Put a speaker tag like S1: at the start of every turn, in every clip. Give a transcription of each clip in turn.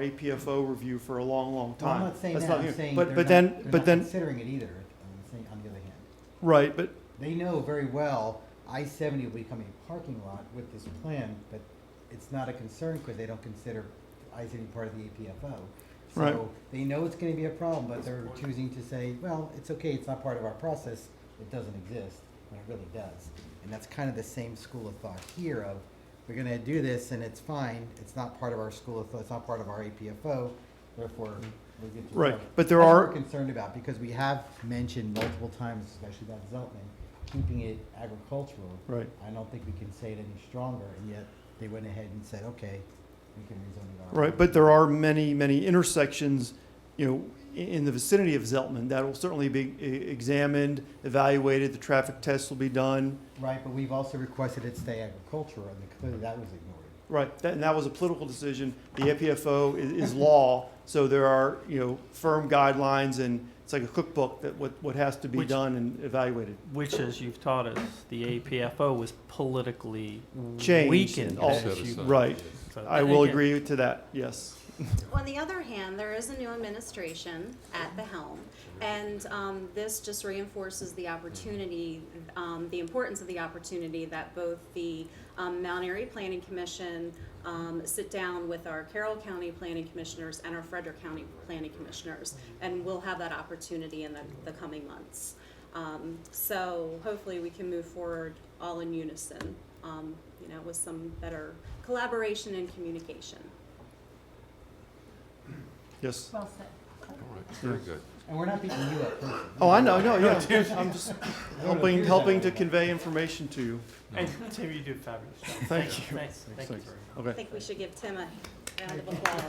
S1: APFO review for a long, long
S2: Well,
S1: time.
S2: I'm not saying
S1: That's
S2: that, I'm
S1: new.
S2: saying
S1: But,
S2: they're
S1: but
S2: not-
S1: then,
S2: they're
S1: but
S2: not
S1: then,
S2: Considering it either, I'm saying, on the other hand.
S1: right, but,
S2: They know very well I seventy will become a parking lot with this plan, but it's not a concern because they don't consider I seventy part of the APFO.
S1: Right.
S2: So they know it's gonna be a problem, but they're choosing to say, well, it's okay, it's not part of our process, it doesn't exist, when it really does. And that's kind of the same school of thought here of, we're gonna do this and it's fine, it's not part of our school of thought, it's not part of our APFO, therefore we get to.
S1: Right,
S2: cover it.
S1: but there
S2: That's what
S1: are-
S2: we're concerned about, because we have mentioned multiple times, especially about Zeltman, keeping it agricultural.
S1: right.
S2: I don't think we can say it any stronger, and yet they went ahead and said, okay, we can rezone it.
S1: Right, but there are many, many intersections, you know, i- in the vicinity of Zeltman that will certainly be e- examined, evaluated, the traffic tests will be done.
S2: Right, but we've also requested it stay agricultural, and clearly that was ignored.
S1: Right, that, and that was a political decision. The APFO is, is law, so there are, you know, firm guidelines and it's like a cookbook that what, what has to be
S3: Which-
S1: done and evaluated.
S3: which, as you've taught us, the APFO was politically
S1: Changed
S3: weakened.
S1: and all-
S3: as you-
S1: Right,
S3: so-
S1: I will
S3: again,
S1: agree to that, yes.
S4: On the other hand, there is a new administration at the helm, and um, this just reinforces the opportunity, um, the importance of the opportunity that both the um, Mount Airy Planning Commission um, sit down with our Carroll County Planning Commissioners and our Frederick County Planning Commissioners, and we'll have that opportunity in the, the coming months. Um, so hopefully we can move forward all in unison, um, you know, with some better collaboration and communication.
S1: Yes.
S5: Well said.
S6: All right, very good.
S2: And we're not beating you up. personally.
S1: Oh, I know, no, yeah, I'm just
S2: No, no,
S1: helping,
S2: here's
S1: helping
S2: that.
S1: to convey information to you.
S3: And Tim, you do a fabulous job.
S1: Thank you.
S3: Thanks, thank you
S1: Thanks.
S3: very much.
S4: I
S1: Okay,
S4: think we should give Tim a round of applause.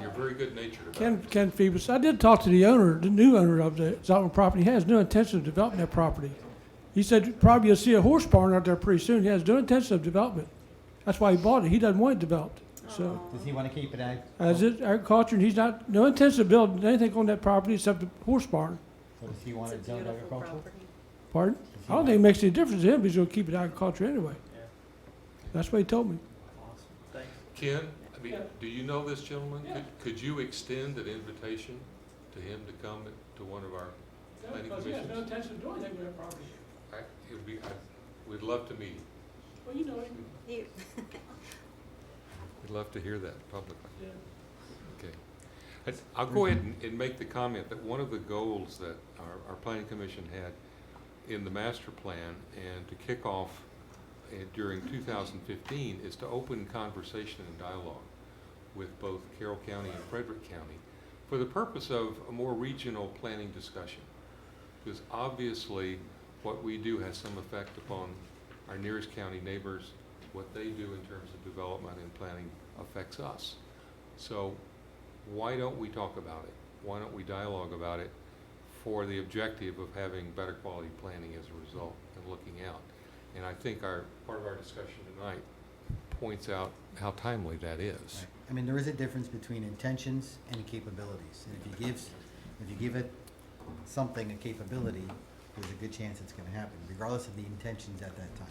S6: You're very good natured about
S7: Ken,
S6: it.
S7: Ken Phoebus, I did talk to the owner, the new owner of the Zoutman property, he has no intention of developing that property. He said probably you'll see a horse barn out there pretty soon, he has no intention of development. That's why he bought it, he doesn't want it developed, so.
S2: Does he want to keep it ag?
S7: As it agriculture, and he's not, no intention of building anything on that property except the horse barn,
S2: So does he want
S4: It's a
S2: it zoned
S4: beautiful
S2: agricultural?
S4: property.
S7: pardon?
S2: Does he
S7: I don't
S2: want
S7: think it makes any difference to him, he's gonna keep it agriculture anyway.
S3: Yeah.
S7: That's what he told me.
S3: Awesome. Thanks.
S6: Ken, I mean, do you know this gentleman? Could, could you extend an invitation to him to come to one of our, Planning because he has no commissions?
S7: intention of doing anything with that property.
S6: I, it would be, I, we'd love to meet him.
S7: Well, you know
S4: You-
S6: We'd love to hear that publicly.
S7: uh,
S6: Mm-hmm. Okay. I- I'll go ahead and, and make the comment that one of the goals that our, our planning commission had in the master plan and to kick off uh, during two thousand fifteen is to open conversation and dialogue with both Carroll County and Frederick County for the purpose of a more regional planning discussion. Because obviously, what we do has some effect upon our nearest county neighbors. What they do in terms of development and planning affects us. So why don't we talk about it? Why don't we dialogue about it for the objective of having better quality planning as a result and looking out? And I think our, part of our discussion tonight points out how timely that is.
S2: Right. I mean, there is a difference between intentions and capabilities. And if you give, if you give it something, a capability, there's a good chance it's gonna happen, regardless of the intentions at that time.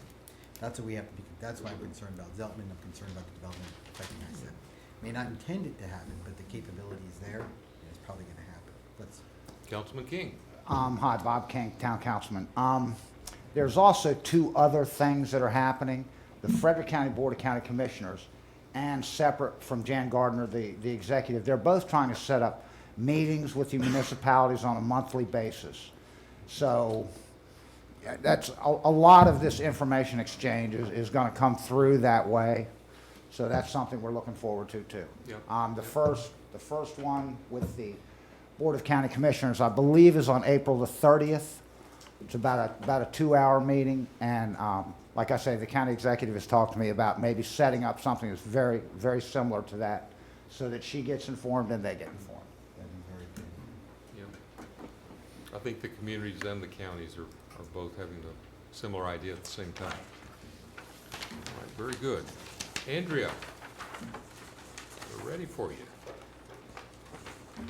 S2: That's what we have to be, that's why I'm concerned about Zeltman, I'm concerned about the development affecting us. May not intend it to happen, but the capability is there, and it's probably gonna happen. Let's,
S6: Councilman King?
S8: Um, hi, Bob King, Town Councilman. Um, there's also two other things that are happening. The Frederick County Board of County Commissioners and separate from Jan Gardner, the, the executive, they're both trying to set up meetings with the municipalities on a monthly basis. So yeah, that's, a, a lot of this information exchange is, is gonna come through that way. So that's something we're looking forward to too.
S6: Yep.
S8: Um, the first, the first one with the Board of County Commissioners, I believe, is on April the thirtieth. It's about a, about a two-hour meeting, and, um, like I say, the county executive has talked to me about maybe setting up something that's very, very similar to that, so that she gets informed and they get informed.
S2: that'd be very good.
S6: Yeah. I think the communities and the counties are, are both having the similar idea at the same time. All right, very good. Andrea, we're ready for you.